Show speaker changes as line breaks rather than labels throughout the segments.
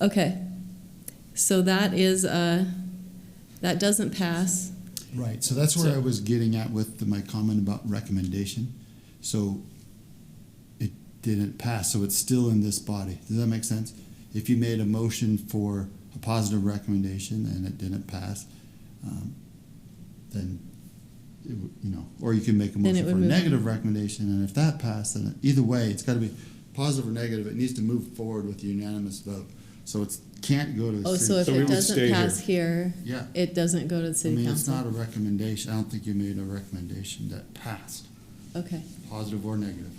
Okay, so that is, uh, that doesn't pass.
Right, so that's where
So-
I was getting at with the, my comment about recommendation. So it didn't pass, so it's still in this body. Does that make sense? If you made a motion for a positive recommendation and it didn't pass, um, then it, would- you know, or you can make a
Then it
motion
would
for a
move on.
negative recommendation, and if that passed, then it- either way, it's got to be positive or negative. It needs to move forward with a unanimous vote. So it can't go to. the
Oh,
city-
so if
So we
it
would stay
doesn't
here.
pass here,
yeah.
it doesn't go to the
I
city
mean, it's not a
council?
recommendation, I don't think you made a recommendation that passed,
Okay,
positive or negative.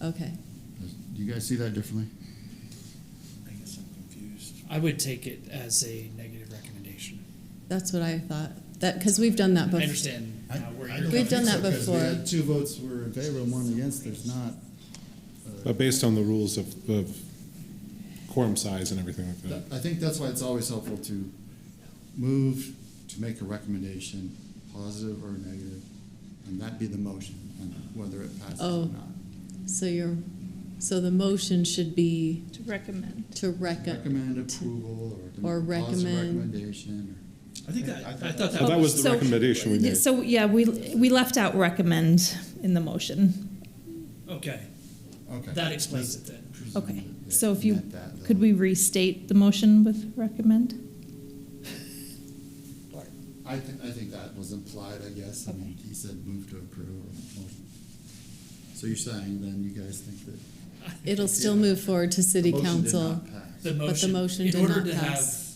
okay.
Does- Do you guys see that differently?
I guess I'm confused.
I would take it as a negative recommendation.
That's what I thought, that, because we've done that
I
before.
understand uh, where
I
you're
don't
We've
coming
done
think
that
so, 'cause we
before.
had Two votes were in favor and one against, there's not,
But Uh, based on the rules of, of quorum size and everything like
Uh,
that.
that- I think that's why it's always helpful to move, to make a recommendation, positive or negative, and that be the motion, and whether it passes
Oh.
or not.
So you're, so the motion should be
To recommend.
to recommend.
Recommend approval or.
or
positive
recommend-
Recommendation, or,
I think that, I thought
Well,
that.
that was the
So-
recommendation we made.
So, yeah, we, we left out recommend in the motion.
from. Okay,
okay.
that explains it then.
Okay,
Presumed that
so if
they
you,
meant that,
could
though.
we restate the motion with recommend?
I think, I think that was implied, I guess, I mean,
Okay.
he said move to approve or motion. So you're saying then you guys think that?
It'll still
Yeah.
move forward to city
the motion did
council.
not pass.
The
But the
motion.
motion did
In order
not
to have,
pass.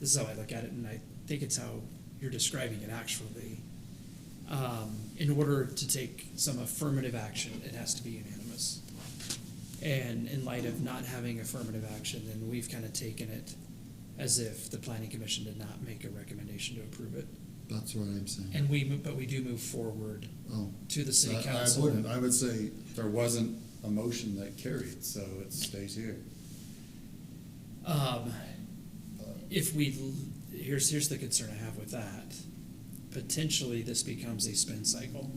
this is how I look at it, and I think it's how you're describing it actually. Um, in order to take some affirmative action, it has to be unanimous. And in light of not having affirmative action, then we've kind of taken it as if the planning commission did not make a recommendation to approve it.
That's what I'm saying.
And we, mo- but we do move forward
Oh,
to the
I-
city
I
council.
wouldn't, I would say there wasn't a motion that carried, so it stays here.
Um, if we, l- here's, here's the concern I have with that. Potentially, this becomes a spin cycle,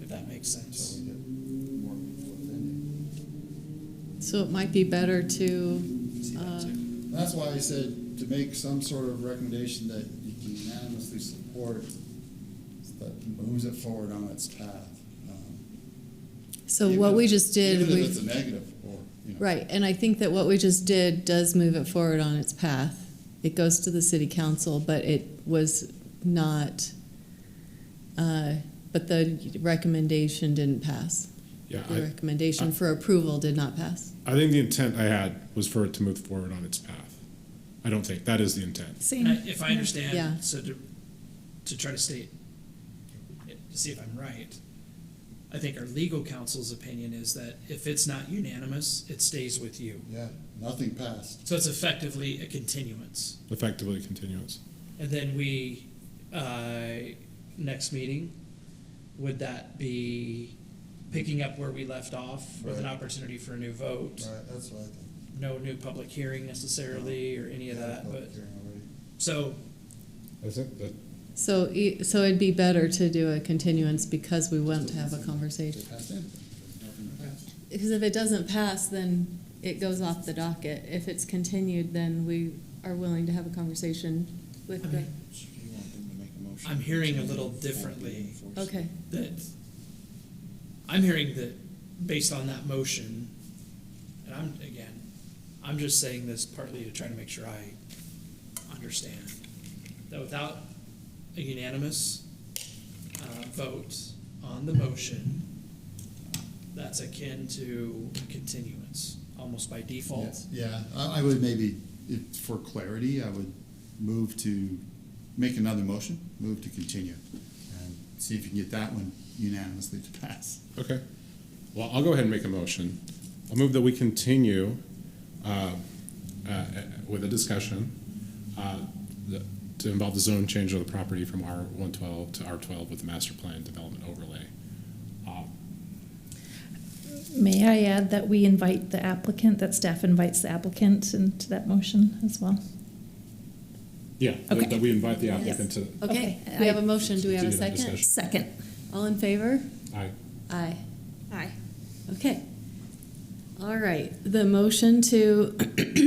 if that makes
So
sense.
we get more people offended.
So it might be better to,
See that
Uh,
too.
That's why I said to make some sort of recommendation that you can unanimously support that moves it forward on its path. Um,
so
Even
what
if-
we just did,
Even if
we,
it's a negative or, you know.
right, and I think that what we just did does move it forward on its path. It goes to the city council, but it was not, uh, but the recommendation didn't pass.
Yeah,
The
I,
recommendation for approval did not pass.
I think the intent I had was for it to move forward on its path. I don't think, that is the intent.
Same.
And I- If I
Yeah.
understand, so to, to try to state, to see if I'm right, I think our legal counsel's opinion is that if it's not unanimous, it stays with you.
Yeah, nothing passed.
So it's effectively a continuance.
Effectively continuous.
And then we, uh, next meeting, would that be picking up where we left off with an
Right.
opportunity for a new vote?
Right, that's what I think.
No new public hearing necessarily or any of that, but, so,
I think that.
So, e- so it'd be better to do a continuance because we want to have a conversation. Because if it doesn't pass, then it goes off the docket. If it's continued, then we are willing to have a conversation with the,
I'm hearing a little differently.
okay.
that, I'm hearing that based on that motion, and I'm, again, I'm just saying this partly to try to make sure I understand, that without a unanimous uh, vote on the motion, that's akin to continuance, almost by default.
Yeah, I, I would maybe, if, for clarity, I would move to, make another motion, move to continue. And see if you can get that one unanimously to pass.
Okay. Well, I'll go ahead and make a motion. I'll move that we continue uh, uh, with a discussion uh, the- to involve the zone change of the property from R112 to R12 with the master plan development overlay.
May I add that we invite the applicant, that staff invites the applicant into that motion as well?
Yeah,
Okay.
that that we invite the applicant to,
Okay,
Okay.
we have a motion. Do we have a
Continue the
second?
discussion.
Second.
All in favor?
I,
Aye.
Aye.
Okay. All right, the motion to